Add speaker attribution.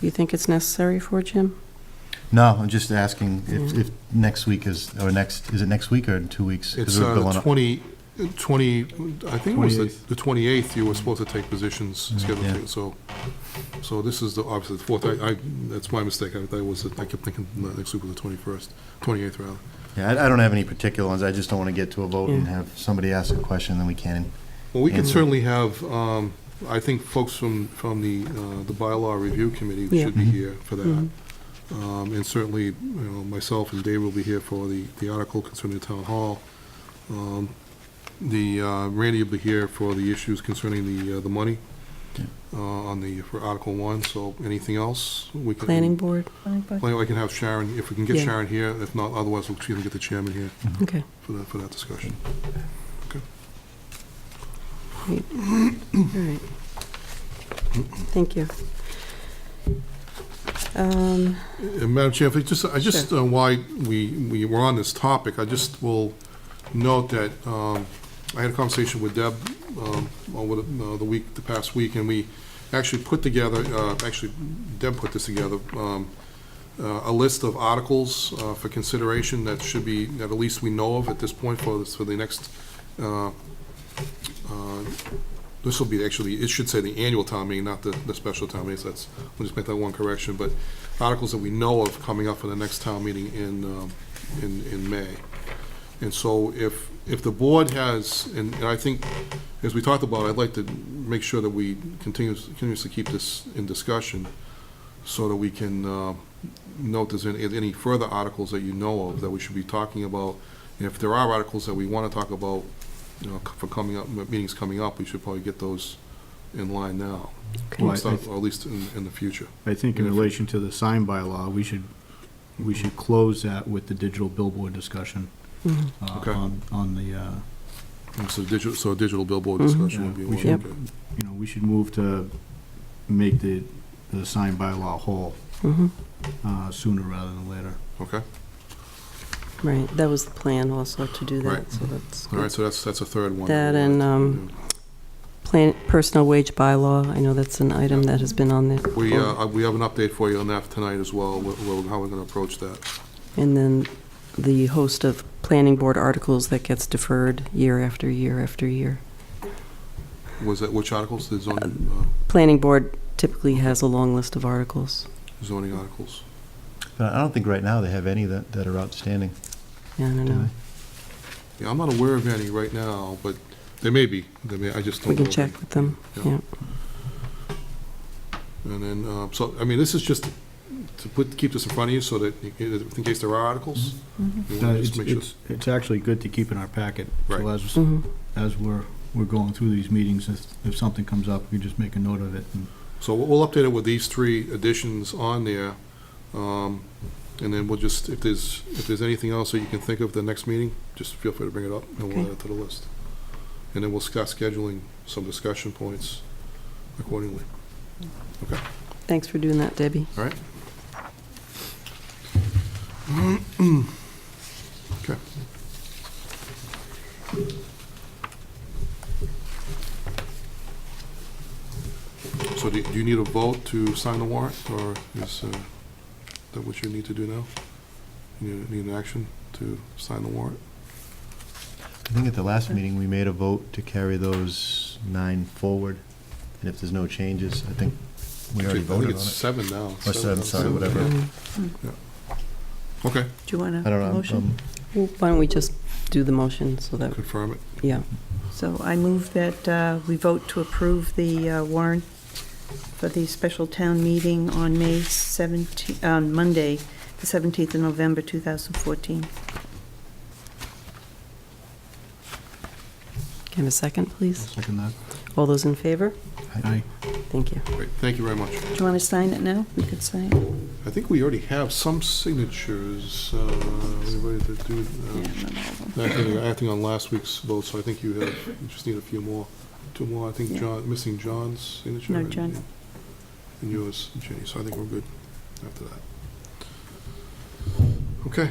Speaker 1: You think it's necessary for Jim?
Speaker 2: No, I'm just asking if,
Speaker 3: Mm-hmm.
Speaker 2: if next week is, or next, is it next week or in two weeks? 'Cause
Speaker 3: It's
Speaker 2: we're
Speaker 3: uh,
Speaker 2: building
Speaker 3: the
Speaker 2: up.
Speaker 3: 20, 20, I think it was the the 28th, you were supposed to take positions scheduled,
Speaker 2: Mm, Yeah.
Speaker 3: to, so, so this is the, obviously, the 4th, I, I- that's my mistake, I I was, I kept thinking the next week was the 21st, 28th rather.
Speaker 2: Yeah, I, I don't have any particular ones, I just don't want to get to a vote and
Speaker 3: Mm.
Speaker 1: Yeah.
Speaker 2: have somebody ask a question, then we can't.
Speaker 3: Well, we can
Speaker 2: Yeah.
Speaker 3: certainly have, um, I think folks from, from the, uh, the bylaw review committee
Speaker 1: Yeah. Mm-hmm.
Speaker 3: should be
Speaker 2: Mhm.
Speaker 3: here for that. Um, and certainly, you know, myself and Dave will be here for the, the article concerning the town hall. Um, the, uh, Randy will be here for the issues concerning the, uh, the money,
Speaker 2: Yeah.
Speaker 3: uh, on the, for Article One, so anything else we can.
Speaker 1: Planning board?
Speaker 3: Plan- I can have Sharon, if we can get
Speaker 1: Yeah.
Speaker 3: Sharon here, if not, otherwise we'll see if we can get the chairman here
Speaker 1: Okay.
Speaker 3: for that, for that discussion.
Speaker 1: Great. All right. Thank you. Um,
Speaker 3: And Uh, Madam Chair, if I just, I just, uh, why we, we were on this topic, I just will note that um, I had a conversation with Deb um, over the uh, the week, the past week, and we actually put together, uh, actually Deb put this together, um, uh, a list of articles uh, for consideration that should be, that at least we know of at this point for this, for the next, uh, uh, this will be actually, it should say the annual town meeting, not the, the special town meeting, so that's, we'll just make that one correction, but articles that we know of coming up for the next town meeting in, um, in, in May. And so if, if the board has, and and I think, as we talked about, I'd like to make sure that we continues, continuously keep this in discussion so that we can uh, note there's any, any further articles that you know of that we should be talking about. And if there are articles that we want to talk about, you know, for coming up, meetings coming up, we should probably get those in line now.
Speaker 1: okay.
Speaker 3: Or
Speaker 4: Well,
Speaker 3: at
Speaker 4: I- I th-
Speaker 3: least in, in the future.
Speaker 4: I think
Speaker 3: Mm-hmm.
Speaker 4: in relation to the sign bylaw, we should, we should close that with the digital billboard discussion
Speaker 1: Mhm.
Speaker 4: uh,
Speaker 3: Okay.
Speaker 4: on, on the, uh,
Speaker 3: Mm, So digital, so a digital billboard
Speaker 1: Mhm.
Speaker 3: discussion
Speaker 4: yeah,
Speaker 3: would be
Speaker 4: we
Speaker 3: one,
Speaker 4: should,
Speaker 3: okay.
Speaker 4: you know, we should move to make the, the sign bylaw whole
Speaker 1: Mhm.
Speaker 4: uh, sooner rather than later.
Speaker 3: Okay,
Speaker 1: Right, that was the plan also to do that,
Speaker 3: Right.
Speaker 1: so that's.
Speaker 3: all right, so that's, that's a third one.
Speaker 1: That and, um, Plan, personal wage bylaw, I know that's an item that has been on there.
Speaker 3: We, uh, we have an update for you on that tonight as well, wh- wh- how we're gonna approach that.
Speaker 1: And then the host of planning board articles that gets deferred year after year after year.
Speaker 3: Was that, which articles, the zoning, uh,
Speaker 1: Planning board typically has a long list of articles.
Speaker 3: zoning articles?
Speaker 2: But I don't think right now they have any that, that are outstanding.
Speaker 1: Yeah, I don't know.
Speaker 3: Yeah, I'm not aware of any right now, but there may be, there may, I just don't
Speaker 1: We
Speaker 3: know.
Speaker 1: can
Speaker 3: of
Speaker 1: check
Speaker 3: any.
Speaker 1: with them, yeah.
Speaker 3: And then, uh, so, I mean, this is just to put, keep this in front of you so that, you can- in case there are articles. you
Speaker 4: Uh,
Speaker 3: wanna
Speaker 4: It's,
Speaker 3: just make sure-
Speaker 4: it's, it's actually good to keep in our packet. So
Speaker 3: Right.
Speaker 4: as,
Speaker 1: Mhm.
Speaker 4: as we're, we're going through these meetings, if, if something comes up, we just make a note of it and
Speaker 3: So we'll- we'll update it with these three additions on there, um, and then we'll just, if there's, if there's anything else that you can think of the next meeting, just feel free to bring it up, and we'll
Speaker 1: Okay.
Speaker 3: add it to the list. And then we'll start scheduling some discussion points accordingly.
Speaker 1: Thanks for doing that, Debbie.
Speaker 3: All right. Okay. So do do you need a vote to sign the warrant, or is uh, that what you need to do now? You need- need an action to sign the warrant?
Speaker 2: I think at the last meeting, we made a vote to carry those nine forward, and if there's no changes, I think we already
Speaker 3: I think
Speaker 2: voted on
Speaker 3: it's
Speaker 2: it.
Speaker 3: seven now.
Speaker 2: Or seven, sorry, whatever.
Speaker 1: Mhm.
Speaker 3: Okay,
Speaker 5: Do you want
Speaker 2: I
Speaker 5: a
Speaker 2: don't know. I'm-
Speaker 5: motion?
Speaker 2: I'm-
Speaker 1: Well, Why don't we just do the motion so that,
Speaker 3: confirm it.
Speaker 1: yeah,
Speaker 5: So I move that uh, we vote to approve the uh, warrant for the special town meeting on May 17, on Monday, the 17th of November, 2014.
Speaker 1: can I have a second,
Speaker 4: I'll
Speaker 1: please?
Speaker 4: second that.
Speaker 1: All those in favor?
Speaker 4: Aye.
Speaker 1: Thank you.
Speaker 3: Great, thank you very much.
Speaker 5: Do you want to sign it now? We could sign it.
Speaker 3: I think we already have some signatures. uh, Anybody to do? uh,
Speaker 5: Yeah, not all of them.
Speaker 3: Acting acting on last week's vote, so I think you have, you just need a few more, two more, I think
Speaker 5: Yeah.
Speaker 3: John, missing John's signature.
Speaker 5: No,
Speaker 3: and-
Speaker 5: John.
Speaker 3: And yours, Jenny, so I think we're good after that. Okay,